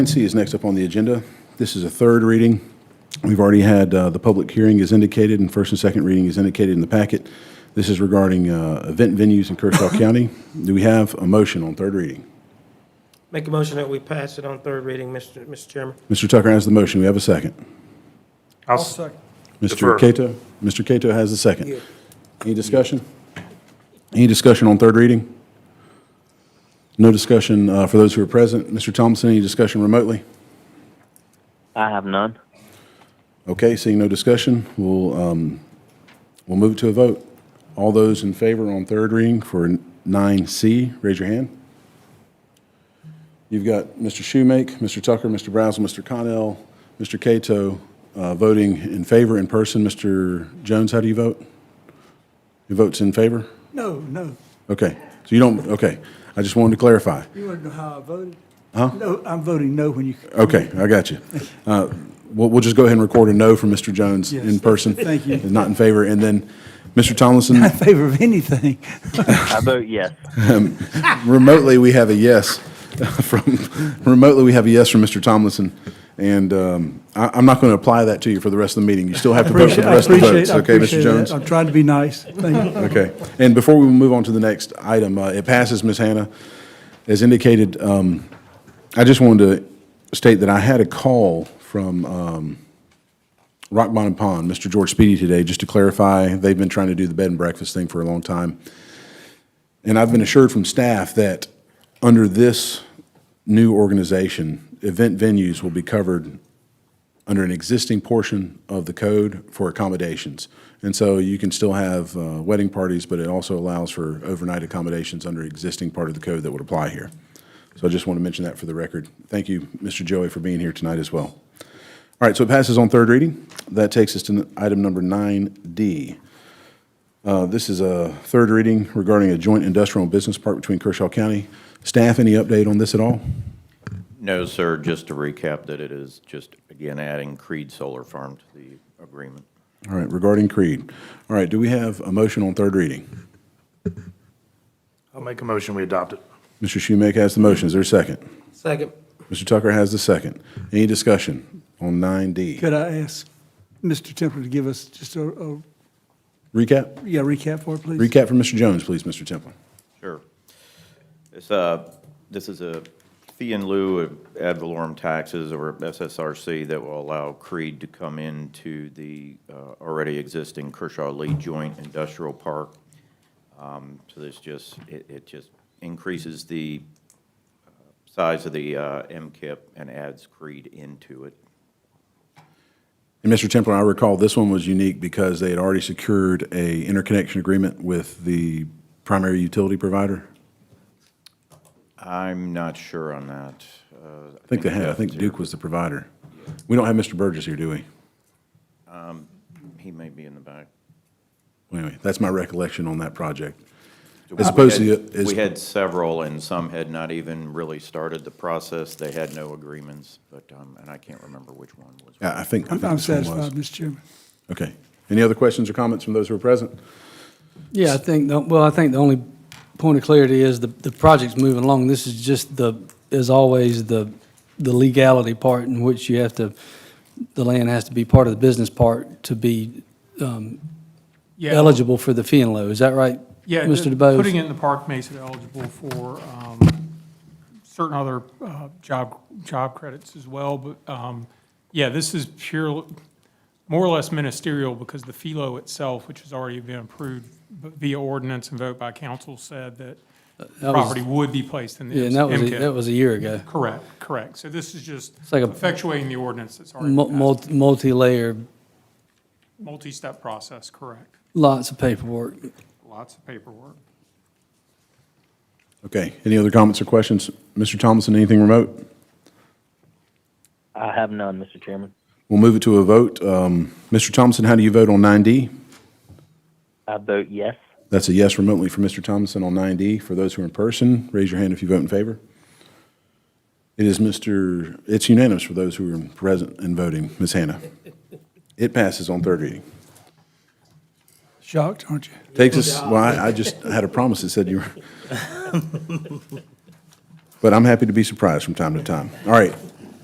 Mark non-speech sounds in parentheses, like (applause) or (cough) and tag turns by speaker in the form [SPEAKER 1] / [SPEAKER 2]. [SPEAKER 1] C is next up on the agenda. This is a third reading. We've already had, uh, the public hearing is indicated, and first and second reading is indicated in the packet. This is regarding uh, event venues in Kershaw County. Do we have a motion on third reading?
[SPEAKER 2] Make a motion that we pass it on third reading, Mr. Mr. Chairman.
[SPEAKER 1] Mr. Tucker has the motion. We have a second.
[SPEAKER 3] I'll second.
[SPEAKER 1] Mr.
[SPEAKER 3] Defer.
[SPEAKER 1] Cato? Mr. Cato has the second. Any discussion? Any discussion on third reading? No discussion uh, for those who are present. Mr. Thompson, any discussion remotely?
[SPEAKER 4] I have none.
[SPEAKER 1] Okay, seeing no discussion, we'll, um, we'll move to a vote. All those in favor on third reading for 9C, raise your hand. You've got Mr. Shoemake, Mr. Tucker, Mr. Brazel, Mr. Connell, Mr. Cato uh, voting in favor in person. Mr. Jones, how do you vote? Your vote's in favor?
[SPEAKER 3] No, no,
[SPEAKER 1] Okay, so you don't, okay. I just wanted to clarify.
[SPEAKER 3] you want to know how I voted? Huh? No, I'm voting no when you.
[SPEAKER 1] Okay, I got you. Uh, We'll, we'll just go ahead and record a no from Mr. Jones in
[SPEAKER 3] Yes,
[SPEAKER 1] person.
[SPEAKER 3] (laughs) thank you.
[SPEAKER 1] Not in favor. And then, Mr. Tomlinson,
[SPEAKER 3] (laughs) In favor of anything.
[SPEAKER 4] I vote yes.
[SPEAKER 1] remotely, we have a yes (laughs) from, remotely, we have a yes from Mr. Tomlinson. And um, I, I'm not going to apply that to you for the rest of the meeting. You still have to vote for (laughs)
[SPEAKER 3] Appreciate,
[SPEAKER 1] the
[SPEAKER 3] I
[SPEAKER 1] rest of the
[SPEAKER 3] appreciate,
[SPEAKER 1] votes.
[SPEAKER 3] I
[SPEAKER 1] Okay,
[SPEAKER 3] appreciate
[SPEAKER 1] Mr.
[SPEAKER 3] that.
[SPEAKER 1] Jones?
[SPEAKER 3] I'm trying to
[SPEAKER 1] (laughs)
[SPEAKER 3] be nice. Thank you.
[SPEAKER 1] Okay. And before we move on to the next item, uh, it passes, Ms. Hannah. As indicated, um, I just wanted to state that I had a call from um, Rock Bottom Pond, Mr. George Speedy today, just to clarify, they've been trying to do the bed and breakfast thing for a long time. And I've been assured from staff that under this new organization, event venues will be covered under an existing portion of the code for accommodations. And so you can still have uh, wedding parties, but it also allows for overnight accommodations under existing part of the code that would apply here. So I just want to mention that for the record. Thank you, Mr. Joey, for being here tonight as well. All right, so it passes on third reading. That takes us to item number 9D. Uh, This is a third reading regarding a joint industrial and business park between Kershaw County. Staff, any update on this at all?
[SPEAKER 5] No, sir, just to recap that it is just, again, adding Creed Solar Farm to the agreement.
[SPEAKER 1] All right, regarding Creed. All right, do we have a motion on third reading?
[SPEAKER 6] I'll make a motion, we adopt it.
[SPEAKER 1] Mr. Schumake has the motion. Is there a second?
[SPEAKER 2] Second.
[SPEAKER 1] Mr. Tucker has the second. Any discussion on 9D?
[SPEAKER 3] Could I ask Mr. Temple to give us just a, a,
[SPEAKER 1] Recap?
[SPEAKER 3] yeah, recap for it, please?
[SPEAKER 1] Recap from Mr. Jones, please, Mr. Templin.
[SPEAKER 5] Sure. This, uh, this is a fee in lieu of ad valorem taxes or SSRC that will allow Creed to come into the, uh, already existing Kershaw Lee Joint Industrial Park. Um, so this just, it, it just increases the uh, size of the, uh, MKIP and adds Creed into it.
[SPEAKER 1] And Mr. Templin, I recall this one was unique because they had already secured a interconnection agreement with the primary utility provider.
[SPEAKER 5] I'm not sure on that. Uh,
[SPEAKER 1] I think they had, I think Duke was the provider. We don't have Mr. Burgess here, do we?
[SPEAKER 5] He may be in the back.
[SPEAKER 1] Anyway, that's my recollection on that project. As opposed to, the- as-
[SPEAKER 5] We had several, and some had not even really started the process. They had no agreements, but, um, and I can't remember which one was.
[SPEAKER 1] Yeah, I think, I
[SPEAKER 3] I'm
[SPEAKER 1] think
[SPEAKER 3] I'm
[SPEAKER 1] this one
[SPEAKER 3] satisfied,
[SPEAKER 1] was.
[SPEAKER 3] Mr. Chairman.
[SPEAKER 1] Okay. Any other questions or comments from those who are present?
[SPEAKER 7] Yeah, I think, the- well, I think the only point of clarity is the, the project's moving along. This is just the, as always, the, the legality part in which you have to, the land has to be part of the business part to be
[SPEAKER 8] Yeah,
[SPEAKER 7] eligible for the fee and low. Is that right?
[SPEAKER 8] Yeah,
[SPEAKER 7] Mr.
[SPEAKER 8] the-
[SPEAKER 7] DeBose?
[SPEAKER 8] Putting it in the park makes it eligible for um, certain other uh, job, job credits as well, but, um, yeah, this is pure, more or less ministerial, because the FILO itself, which has already been approved via ordinance and vote by council, said that
[SPEAKER 7] Uh, That was-
[SPEAKER 8] property would be placed in the
[SPEAKER 7] Yeah, and that was, a-
[SPEAKER 8] MCAT.
[SPEAKER 7] that was a year ago.
[SPEAKER 8] Correct, correct. So this is just
[SPEAKER 7] like a-
[SPEAKER 8] effectuating the ordinance that's already
[SPEAKER 7] Mul-
[SPEAKER 8] been passed.
[SPEAKER 7] mul- Multi-layer,
[SPEAKER 8] Multi-step process, correct.
[SPEAKER 7] lots of paperwork.
[SPEAKER 8] Lots of paperwork.
[SPEAKER 1] Okay. Any other comments or questions? Mr. Thompson, anything remote?
[SPEAKER 4] I have none, Mr. Chairman.
[SPEAKER 1] We'll move it to a vote. Um, Mr. Thompson, how do you vote on 9D?
[SPEAKER 4] I vote yes.
[SPEAKER 1] That's a yes remotely for Mr. Thompson on 9D. For those who are in person, raise your hand if you vote in favor. It is Mr., it's unanimous for those who are present and voting. Ms. Hannah? It passes on third reading.
[SPEAKER 3] Shocked, aren't you?
[SPEAKER 1] Takes us, well, I I just had a promise that said you were. But I'm happy to be surprised from time to time. All right,